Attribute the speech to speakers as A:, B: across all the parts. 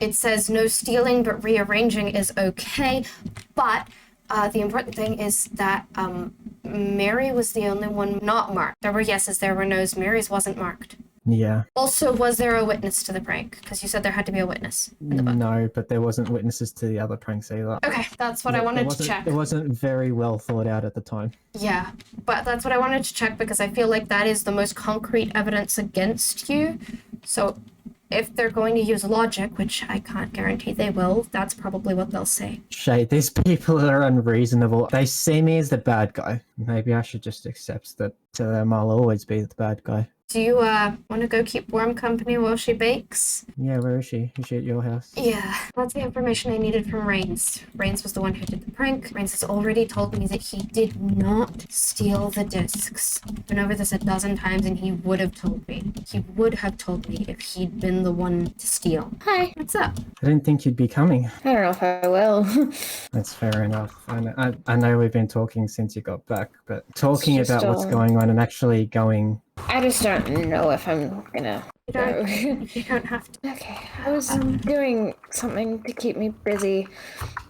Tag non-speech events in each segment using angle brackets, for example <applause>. A: it says no stealing, but rearranging is okay. But uh, the important thing is that um, Mary was the only one not marked. There were yeses, there were nos. Mary's wasn't marked.
B: Yeah.
A: Also, was there a witness to the prank? Because you said there had to be a witness in the book.
B: No, but there wasn't witnesses to the other pranks either.
A: Okay, that's what I
B: It
A: wanted to
B: wasn't-
A: check.
B: It wasn't very well thought out at the time.
A: Yeah, but that's what I wanted to check because I feel like that is the most concrete evidence against you. So if they're going to use logic, which I can't guarantee they will, that's probably what they'll say.
B: Shay, these <laughs> people are unreasonable. They see me as the bad guy. Maybe I should just accept that to them I'll always be the bad guy.
A: Do you uh want to go keep warm company while she bakes?
B: Yeah, where is she? Is she at your house?
A: Yeah, that's the information I needed from Rains. Rains was the one who did the prank. Rains has already told me that he did not steal the discs. Been over this a dozen times, and he would have told me. He would have told me if he'd been the one to steal.
C: Hi.
A: What's up?
B: I didn't think you'd be coming.
C: I don't know if I will. <laughs>
B: That's fair enough. I know, I, I know we've been talking since you got back, but talking
C: just,
B: about what's
C: uh,
B: going on and actually going. <laughs>
C: I just don't know if I'm gonna.
A: You don't
C: Go.
A: You don't have to.
C: <laughs> okay. I was doing something to keep me busy,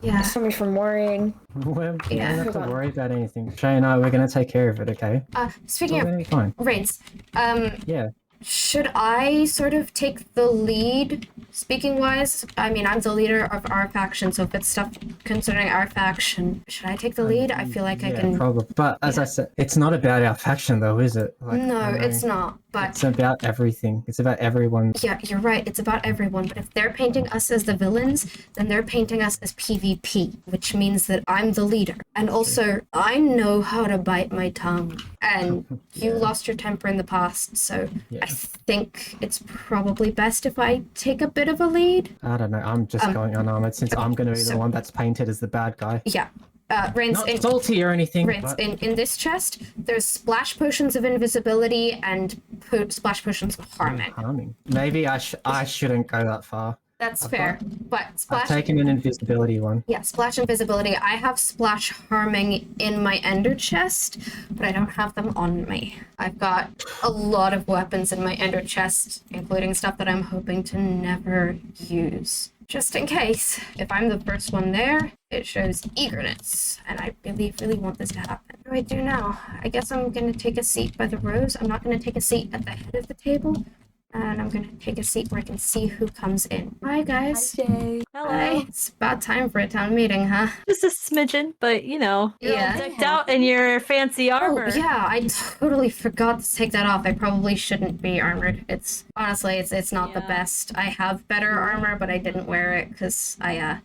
A: Yeah.
C: stop me from worrying.
B: We're, we
A: Yeah.
B: don't have
C: Hold
B: to
C: on.
B: worry about anything. Shay and I, we're going to take care of it, okay?
A: Uh, speaking
B: We're
A: of
B: going to be fine.
A: Rains, um,
B: Yeah.
A: should I sort of take the lead, speaking wise? I mean, I'm the leader of our faction, so if it's stuff concerning our faction, should I take the lead? I feel like I
B: Yeah,
A: can.
B: probably. But as I said, it's not about our faction, though, is it? Like,
A: no,
B: I know
A: it's not. But
B: It's about everything. It's about everyone.
A: yeah, you're right. It's about everyone. But if they're painting us as the villains, then they're painting us as PvP, which means that I'm the leader. And also, I know how to bite my tongue.
B: <laughs>
A: And you
B: Yeah.
A: lost your temper in the past, so
B: Yeah.
A: I think it's probably best if I take a bit of a lead.
B: I don't know. I'm just
A: Um,
B: going unarmored since I'm going to be
A: so-
B: the one that's painted as the bad guy.
A: Yeah. Uh, Rince,
B: Not
A: in,
B: salty or anything.
A: Rince
B: but-
A: in, in this chest, there's splash potions of invisibility and po- splash potions of harming.
B: harming. Maybe I sh- I shouldn't go that far.
A: That's
B: I've
A: fair. But
B: I've
A: splash
B: taken an invisibility one.
A: Yeah, splash invisibility. I have splash harming in my ender chest, but I don't have them on me. I've got a lot of weapons in my ender chest, including stuff that I'm hoping to never use. Just in case. If I'm the first one there, it shows eagerness, and I really, really want this to happen. What do I do now? I guess I'm gonna take a seat by the rose. I'm not gonna take a seat at the head of the table, and I'm gonna take a seat where I can see who comes in. Hi, guys.
D: Jay.
A: Hi. It's about time for a town meeting, huh?
D: Just a smidgen, but you know, you're all
A: Yeah.
D: decked out in your fancy armor.
A: Oh, yeah, I totally forgot to take that off. I probably shouldn't be armored. It's honestly, it's it's not the
D: Yeah.
A: best. I have better armor, but I didn't wear it because I uh,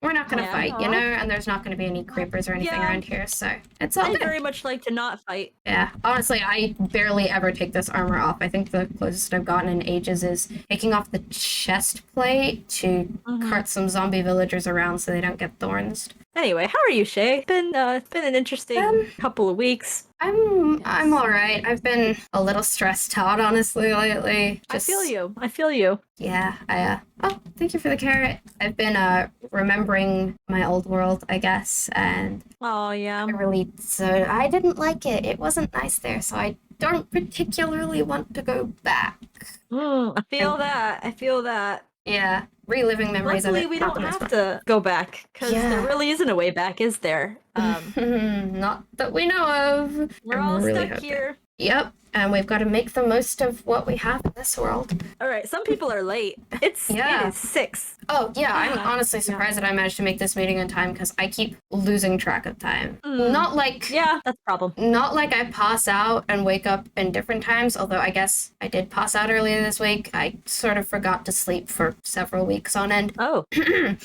A: we're not gonna
D: Yeah.
A: fight, you
D: Aw.
A: know, and there's not gonna be any creepers or anything
D: Yeah.
A: around here, so it's all
D: I
A: good.
D: very much like to not fight.
A: Yeah, honestly, I barely ever take this armor off. I think the closest I've gotten in ages is taking off the chest plate to
D: Mhm.
A: cart some zombie villagers around so they don't get thorns.
D: Anyway, how are you, Shay? Been uh, it's been an interesting
A: Um,
D: couple of weeks.
A: I'm I'm all right. I've been a little stressed out, honestly, lately.
D: I feel
A: Just-
D: you. I feel you.
A: Yeah, I. Uh, oh, thank you for the carrot. I've been uh remembering my old world, I guess, and
D: Oh yeah.
A: I really so I didn't like it. It wasn't nice there, so I don't particularly want to go back.
D: Mm, I feel that. I feel that.
A: Yeah, reliving memories
D: Luckily,
A: of it.
D: we
A: not
D: don't
A: the most
D: have to go back because
A: Yeah.
D: there really isn't a way back, is
A: <laughs>
D: there? Um,
A: fun. <laughs> not that we know of.
D: we're
A: I'm
D: all
A: really
D: stuck
A: hoping.
D: here.
A: Yep, and we've got to make the most of what we have in this world.
D: All right. Some people are late. It's
A: Yeah.
D: it is six.
A: Oh yeah, I'm
D: Yeah.
A: honestly surprised that I managed to make this meeting on time because I keep losing track of time.
D: Mm.
A: Not like
D: Yeah, that's a problem.
A: not like I pass out and wake up in different times, although I guess I did pass out earlier this week. I sort of forgot to sleep for several weeks on end. <clears throat>
D: Oh,
A: It,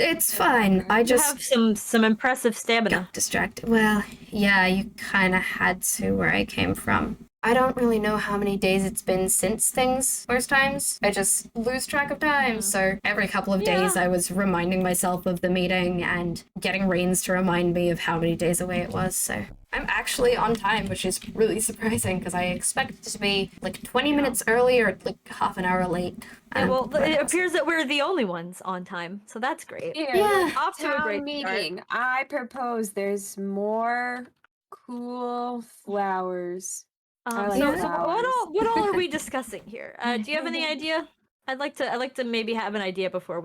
A: it's fine. I
D: you
A: just
D: have some some impressive stamina.
A: got distracted. Well, yeah, you kind of had to where I came from. I don't really know how many days it's been since things worse times. I just lose track of time. So every couple of days, I was reminding myself of the meeting and getting Rains to remind me of how many days away it was. So I'm actually on time, which is really <laughs> surprising because I expected to be like 20 minutes early or like half an hour late.
D: Yeah,
A: Um,
D: well,
A: but
D: it
A: I was-
D: appears that we're the only ones on time, so that's great.
E: Here,
A: Yeah.
D: Off to a
E: town
D: great
E: meeting. I propose there's more cool flowers. I
D: start. Um,
E: like
D: so,
A: the
D: so what
E: flowers. <laughs>
D: all what all are we discussing here? Uh, do you have any idea? I'd like to. I'd like to maybe have an idea before we.